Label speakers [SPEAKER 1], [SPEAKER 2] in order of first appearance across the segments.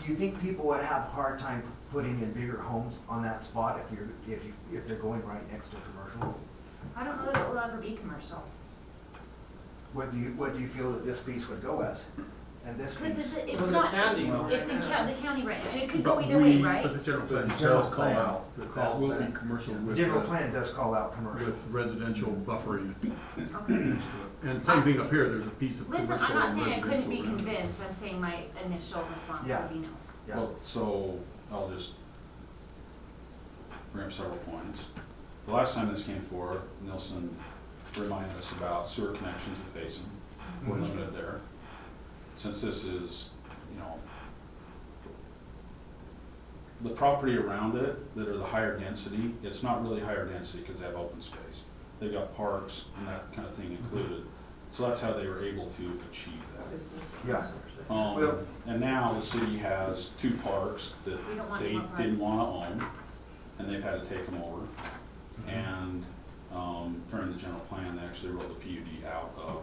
[SPEAKER 1] Do you think people would have a hard time putting in bigger homes on that spot if you're, if you, if they're going right next to a commercial?
[SPEAKER 2] I don't know that it will ever be commercial.
[SPEAKER 1] What do you, what do you feel that this piece would go as? And this
[SPEAKER 2] Because it's,
[SPEAKER 1] piece?
[SPEAKER 2] it's
[SPEAKER 3] Well,
[SPEAKER 2] not,
[SPEAKER 3] the county will.
[SPEAKER 2] it's, it's in county, the county right now, and it could go
[SPEAKER 4] But
[SPEAKER 2] either way,
[SPEAKER 4] we-
[SPEAKER 2] right?
[SPEAKER 4] But the general plan
[SPEAKER 5] The general
[SPEAKER 4] does call
[SPEAKER 5] plan
[SPEAKER 4] out that that
[SPEAKER 5] calls
[SPEAKER 4] will be
[SPEAKER 5] that.
[SPEAKER 4] commercial
[SPEAKER 1] The
[SPEAKER 4] with,
[SPEAKER 1] general
[SPEAKER 4] uh,
[SPEAKER 1] plan does call out commercial.
[SPEAKER 4] with residential buffering.
[SPEAKER 2] Okay.
[SPEAKER 4] And same thing up here, there's a piece of commercial
[SPEAKER 2] Listen,
[SPEAKER 4] and
[SPEAKER 2] I'm not saying
[SPEAKER 4] residential.
[SPEAKER 2] I couldn't be
[SPEAKER 4] around it.
[SPEAKER 2] convinced, I'm saying my initial response
[SPEAKER 1] Yeah.
[SPEAKER 2] would be no.
[SPEAKER 1] Yeah.
[SPEAKER 5] Well, so I'll just bring up several points. The last time this came forward, Nelson reminded us about sewer connections with basin, we're
[SPEAKER 1] Mhm.
[SPEAKER 5] limited there. Since this is, you know, the property around it that are the higher density, it's not really higher density because they have open space. They've got parks and that kind of thing
[SPEAKER 1] Mhm.
[SPEAKER 5] included, so that's how they were able to achieve that.
[SPEAKER 1] Yeah. Well-
[SPEAKER 5] Um, and now the city has two parks that
[SPEAKER 2] We don't want
[SPEAKER 5] they
[SPEAKER 2] more parks.
[SPEAKER 5] didn't wanna own, and they've had to take them over. And, um, during the general plan, they actually wrote the PUD out of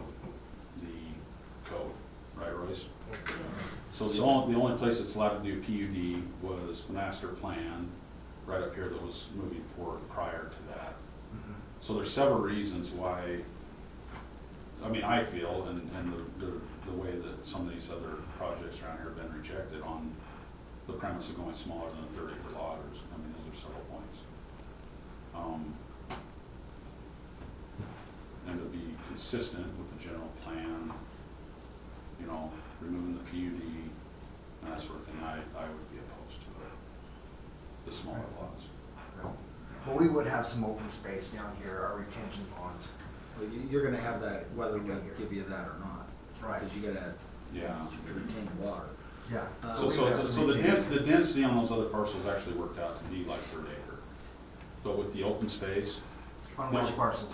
[SPEAKER 5] the code, right, Royce? So the only, the only place that's allowed to do PUD was the master plan, right up here that was moving forward prior to that.
[SPEAKER 1] Mhm.
[SPEAKER 5] So there's several reasons why, I mean, I feel, and, and the, the, the way that some of these other projects around here have been rejected on the premise of going smaller than a thirty acre lot, or, s- I mean, those are several points. Um, And to be consistent with the general plan, you know, removing the PUD, and that sort of thing, I, I would be opposed to it. The smaller lots.
[SPEAKER 1] Well, we would have some open space down here, our retention ponds.
[SPEAKER 6] Well, you- You're gonna have that whether we give you that or not.
[SPEAKER 1] Right.
[SPEAKER 6] Because you gotta
[SPEAKER 5] Yeah.
[SPEAKER 6] retain water.
[SPEAKER 1] Yeah.
[SPEAKER 6] Uh,
[SPEAKER 5] So,
[SPEAKER 6] we
[SPEAKER 5] so,
[SPEAKER 6] have
[SPEAKER 5] so
[SPEAKER 6] some
[SPEAKER 5] the
[SPEAKER 6] retain-
[SPEAKER 5] dens, the density on those other parcels actually worked out to be like third acre. But with the open space,
[SPEAKER 1] On which parcels?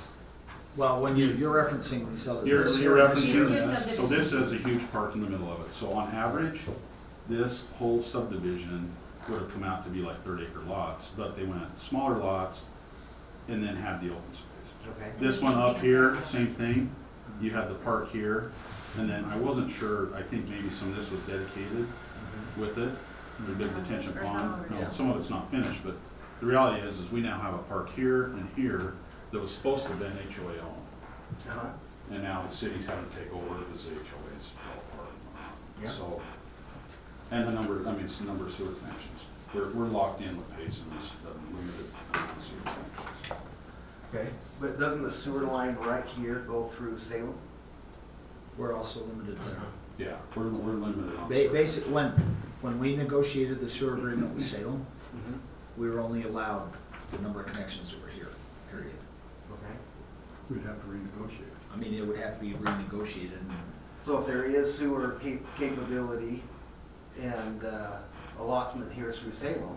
[SPEAKER 6] Well, when you, you're referencing these other.
[SPEAKER 5] you're,
[SPEAKER 6] these
[SPEAKER 5] you're
[SPEAKER 6] other-
[SPEAKER 5] referencing
[SPEAKER 2] These two
[SPEAKER 5] this, so this is a huge park in the middle of it. So on average, this whole subdivision would have come out to be like third acre lots, but they went smaller lots and then had the open space.
[SPEAKER 1] Okay.
[SPEAKER 5] This one up here, same thing, you had the park here, and then I wasn't sure, I think maybe some of this was dedicated,
[SPEAKER 1] Mm-hmm.
[SPEAKER 5] with it, the big detention
[SPEAKER 2] Or some
[SPEAKER 5] pond.
[SPEAKER 2] of it.
[SPEAKER 5] No, Some of it's not finished, but the reality is, is we now have a park here and here that was supposed to have been HOA owned.
[SPEAKER 1] Uh-huh.
[SPEAKER 5] And now the city's having to take over because the HOA's fell apart. and
[SPEAKER 1] Yeah.
[SPEAKER 5] whatnot. So, and the number, I mean, it's the number of sewer connections. We're, we're locked in with Payson, this, the limited amount of sewer connections.
[SPEAKER 1] Okay, but doesn't the sewer line right here go through Salem?
[SPEAKER 6] We're also limited there.
[SPEAKER 5] Yeah, we're, we're limited on.
[SPEAKER 6] Ba-
[SPEAKER 5] sewer.
[SPEAKER 6] basic, when, when we negotiated the sewer agreement with Salem,
[SPEAKER 1] Mm-hmm.
[SPEAKER 6] we were only allowed the number of connections that were here, period.
[SPEAKER 1] Okay.
[SPEAKER 4] We'd have to renegotiate.
[SPEAKER 6] I mean, it would have to be renegotiated and
[SPEAKER 1] So if there is sewer cap- capability and uh, allotment here through Salem,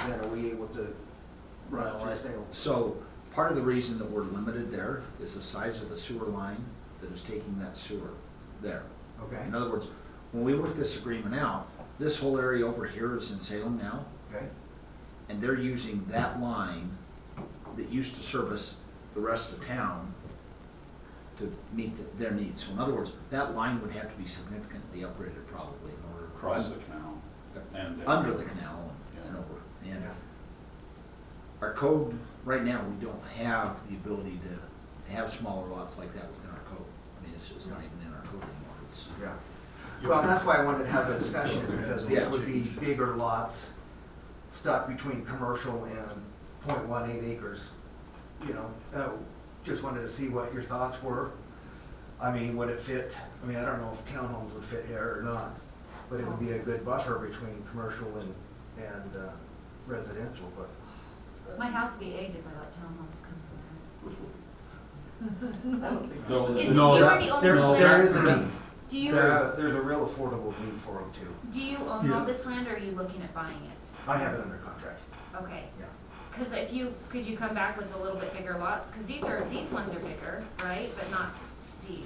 [SPEAKER 1] then are we able to run it through Salem?
[SPEAKER 6] So part of the reason that we're limited there is the size of the sewer line that is taking that sewer there.
[SPEAKER 1] Okay,
[SPEAKER 6] In other words, when we work this agreement out, this whole area over here is in Salem now,
[SPEAKER 1] okay,
[SPEAKER 6] and they're using that line that used to service the rest of town to meet th- their needs. So in other words, that line would have to be significantly upgraded probably in order to.
[SPEAKER 5] Across the canal and. down.
[SPEAKER 6] Under the canal and
[SPEAKER 5] Yeah.
[SPEAKER 6] over. And
[SPEAKER 1] Yeah.
[SPEAKER 6] our code, right now, we don't have the ability to have smaller lots like that within our code. I mean, it's just not even in our code anymore. It's,
[SPEAKER 1] yeah. Well, that's why I wanted to have the discussion, is because these would be bigger lots stuck between commercial and .18 acres, you know? Uh, Just wanted to see what your thoughts were. I mean, would it fit, I mean, I don't know if townhomes would fit here or not, but it would be a good buffer between commercial and, and uh, residential, but.
[SPEAKER 2] My house would be aged if I let townhomes come from
[SPEAKER 5] No,
[SPEAKER 2] there. Is, do you
[SPEAKER 5] no,
[SPEAKER 2] already own
[SPEAKER 1] There,
[SPEAKER 2] this
[SPEAKER 1] there
[SPEAKER 2] land?
[SPEAKER 1] is a need,
[SPEAKER 2] Do you,
[SPEAKER 1] there, there's a real affordable need for them too.
[SPEAKER 2] do you own all
[SPEAKER 4] Yeah.
[SPEAKER 2] this land or are you looking at buying it?
[SPEAKER 1] I have it under contract,
[SPEAKER 2] Okay,
[SPEAKER 1] yeah.
[SPEAKER 2] because if you, could you come back with a little bit bigger lots? Because these are, these ones are bigger, right, but not these.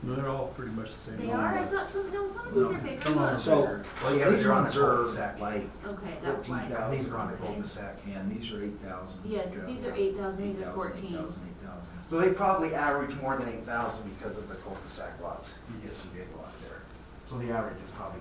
[SPEAKER 4] No, They're all pretty much the same.
[SPEAKER 2] They are, I thought, so, no, some of these are bigger.
[SPEAKER 4] Come on,
[SPEAKER 2] look.
[SPEAKER 6] so,
[SPEAKER 1] Well, yeah,
[SPEAKER 6] so these
[SPEAKER 1] you're on a
[SPEAKER 6] ones are
[SPEAKER 1] cul-de-sac.
[SPEAKER 6] like
[SPEAKER 2] Okay, that's
[SPEAKER 6] fourteen
[SPEAKER 2] why.
[SPEAKER 1] I think
[SPEAKER 6] thousand.
[SPEAKER 1] they're on a cul-de-sac.
[SPEAKER 6] And these are eight thousand.
[SPEAKER 2] Yeah, 'cause these are 8,000, these are 14.
[SPEAKER 1] So they probably average more than eight thousand because of the cul-de-sac lots. You get some big lots there. So the average is probably